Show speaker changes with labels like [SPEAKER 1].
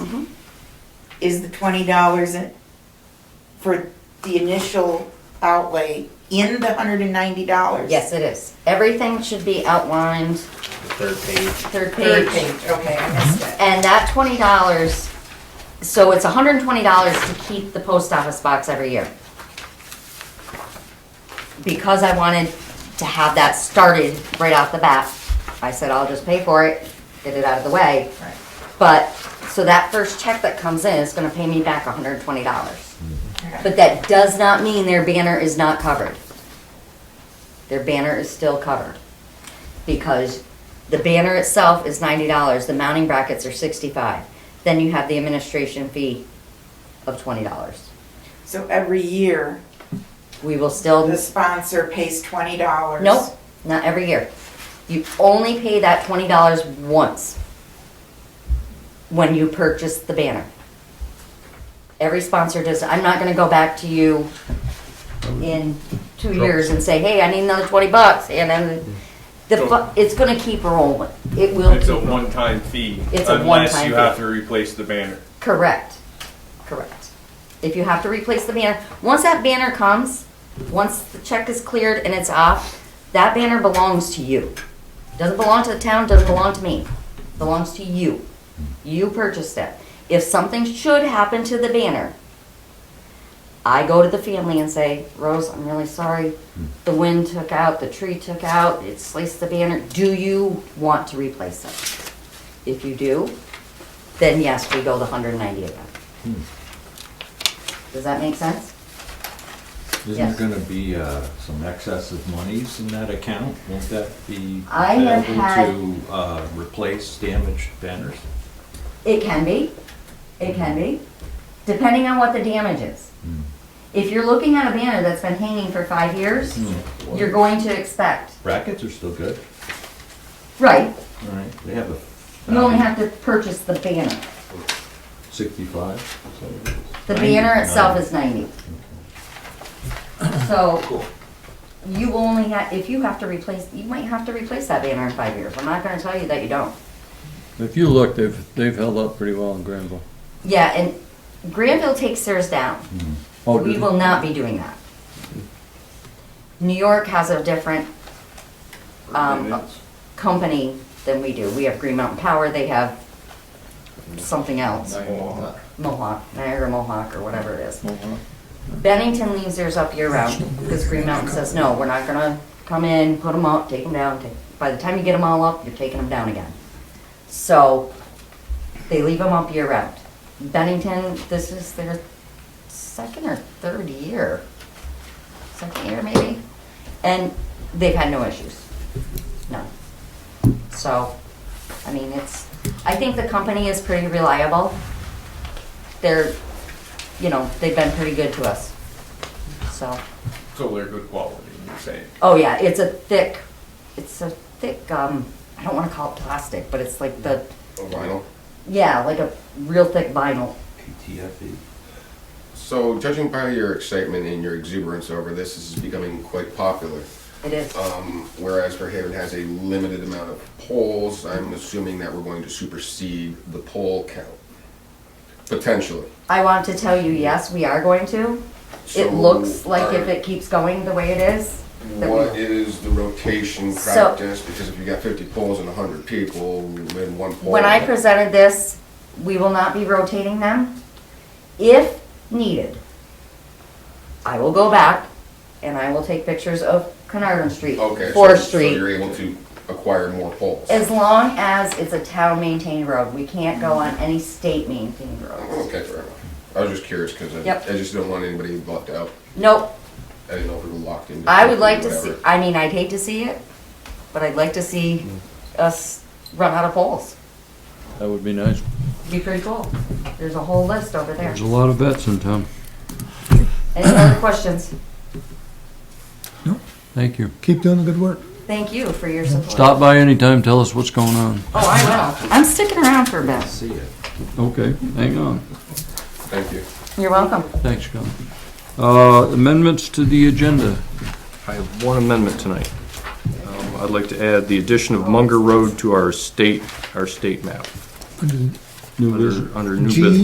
[SPEAKER 1] is the twenty dollars for the initial outlay in the hundred and ninety dollars?
[SPEAKER 2] Yes, it is. Everything should be outlined,
[SPEAKER 3] the third page.
[SPEAKER 2] third
[SPEAKER 1] Third
[SPEAKER 2] page.
[SPEAKER 1] page, okay, I missed it.
[SPEAKER 2] And that twenty dollars, so it's hundred and twenty dollars to keep the post office box every year. Because I wanted to have that started right off the bat, I said, I'll just pay for it, get it out of the way.
[SPEAKER 1] Right.
[SPEAKER 2] But, so that first check that comes in is gonna pay me back hundred and twenty dollars.
[SPEAKER 1] Okay.
[SPEAKER 2] But that does not mean their banner is not covered. Their banner is still covered. Because the banner itself is ninety dollars, the mounting brackets are sixty-five. Then you have the administration fee of twenty dollars.
[SPEAKER 1] So every year,
[SPEAKER 2] We will still,
[SPEAKER 1] the sponsor pays twenty dollars?
[SPEAKER 2] nope, not every year. You only pay that twenty dollars once when you purchase the banner. Every sponsor does, I'm not gonna go back to you in two
[SPEAKER 3] Sure.
[SPEAKER 2] years and say, hey, I need another twenty bucks, and then the, fu- it's gonna keep rolling. It will
[SPEAKER 4] It's a
[SPEAKER 2] keep,
[SPEAKER 4] one-time fee.
[SPEAKER 2] It's a
[SPEAKER 4] Unless
[SPEAKER 2] one-time
[SPEAKER 4] you
[SPEAKER 2] fee.
[SPEAKER 4] have to replace the banner.
[SPEAKER 2] correct, correct. If you have to replace the banner, once that banner comes, once the check is cleared and it's off, that banner belongs to you. Doesn't belong to the town, doesn't belong to me, belongs to you. You purchased it. If something should happen to the banner, I go to the family and say, Rose, I'm really sorry. The wind took out, the tree took out, it sliced the banner. Do you want to replace it? If you do, then yes, we go the hundred and ninety again.
[SPEAKER 5] Hmm.
[SPEAKER 2] Does that make sense?
[SPEAKER 5] Isn't
[SPEAKER 2] Yes.
[SPEAKER 5] there gonna be uh, some excess of monies in that account? Won't that be
[SPEAKER 2] I have had-
[SPEAKER 5] available to uh, replace damaged banners?
[SPEAKER 2] It can be, it can be, depending on what the damage is. If you're looking at a banner that's been hanging for five years,
[SPEAKER 5] Hmm.
[SPEAKER 2] you're going to expect,
[SPEAKER 5] Brackets are still good,
[SPEAKER 2] right,
[SPEAKER 5] all right, they have a.
[SPEAKER 2] you only have to purchase the banner.
[SPEAKER 5] Sixty-five, so.
[SPEAKER 2] The
[SPEAKER 5] 90,
[SPEAKER 2] banner itself
[SPEAKER 5] right?
[SPEAKER 2] is ninety. So, you only have, if you have to replace, you might have to replace that banner in five years, I'm not gonna tell you that you don't.
[SPEAKER 6] If you look, they've, they've held up pretty well in Granville.
[SPEAKER 2] Yeah, and Granville takes theirs down.
[SPEAKER 6] Oh,
[SPEAKER 2] We
[SPEAKER 6] did-
[SPEAKER 2] will not be doing that. New York has a different um, company than we do. We have Green Mountain Power, they have something else. Mohawk, Niagara Mohawk, or whatever it is. Bennington leaves theirs up year round, because Green Mountain says, no, we're not gonna come in, put them up, take them down, take, by the time you get them all up, you're taking them down again. So, they leave them up year round. Bennington, this is their second or third year, second year maybe, and they've had no issues, none. So, I mean, it's, I think the company is pretty reliable. They're, you know, they've been pretty good to us. So,
[SPEAKER 4] So they're good quality, you're saying.
[SPEAKER 2] oh yeah, it's a thick, it's a thick, um, I don't wanna call it plastic, but it's like the,
[SPEAKER 7] Oh, Vinyl.
[SPEAKER 2] yeah, like a real thick vinyl.
[SPEAKER 5] PTFE.
[SPEAKER 7] So, judging by your excitement and your exuberance over this, this is becoming quite popular.
[SPEAKER 2] It is,
[SPEAKER 7] Um, whereas Fairhaven has a limited amount of polls, I'm assuming that we're going to supersede the poll count. Potentially.
[SPEAKER 2] I want to tell you, yes, we are going to.
[SPEAKER 7] So,
[SPEAKER 2] It looks like if
[SPEAKER 7] are-
[SPEAKER 2] it keeps going the way it is, that we
[SPEAKER 7] What is the rotation
[SPEAKER 2] So-
[SPEAKER 7] practice? Because if you got 50 polls and 100 people in one poll.
[SPEAKER 2] When I presented this, we will not be rotating them. If needed, I will go back and I will take pictures of Carnarvon Street,
[SPEAKER 7] Okay, so,
[SPEAKER 2] Fourth
[SPEAKER 7] so you're
[SPEAKER 2] Street.
[SPEAKER 7] able to acquire more polls.
[SPEAKER 2] As long as it's a town maintained road, we can't go on any state maintained roads.
[SPEAKER 7] Okay, fair enough. I was just curious because I,
[SPEAKER 2] Yep.
[SPEAKER 7] I just don't want anybody left out.
[SPEAKER 2] Nope,
[SPEAKER 7] I didn't know if we were locked in.
[SPEAKER 2] I would like to
[SPEAKER 7] whatever.
[SPEAKER 2] see, I mean, I'd hate to see it, but I'd like to see
[SPEAKER 7] Hmm.
[SPEAKER 2] us run out of poles.
[SPEAKER 6] That would be nice.
[SPEAKER 2] Be pretty cool. There's a whole list over there.
[SPEAKER 6] There's a lot of vets in town.
[SPEAKER 2] Any other questions?
[SPEAKER 6] Thank you.
[SPEAKER 8] Keep doing the good work.
[SPEAKER 2] Thank you for your support.
[SPEAKER 6] Stop by anytime, tell us what's going on.
[SPEAKER 2] Oh, I will. I'm sticking around for a bit.
[SPEAKER 5] See it.
[SPEAKER 6] Okay, hang on.
[SPEAKER 7] Thank you.
[SPEAKER 2] You're welcome.
[SPEAKER 6] Thanks, Colin. Uh, amendments to the agenda.
[SPEAKER 9] I have one amendment tonight. Um, I'd like to add the addition of Munger Road to our state, our state map.
[SPEAKER 6] New
[SPEAKER 9] Under-
[SPEAKER 6] business?
[SPEAKER 9] Under new
[SPEAKER 3] G
[SPEAKER 9] business.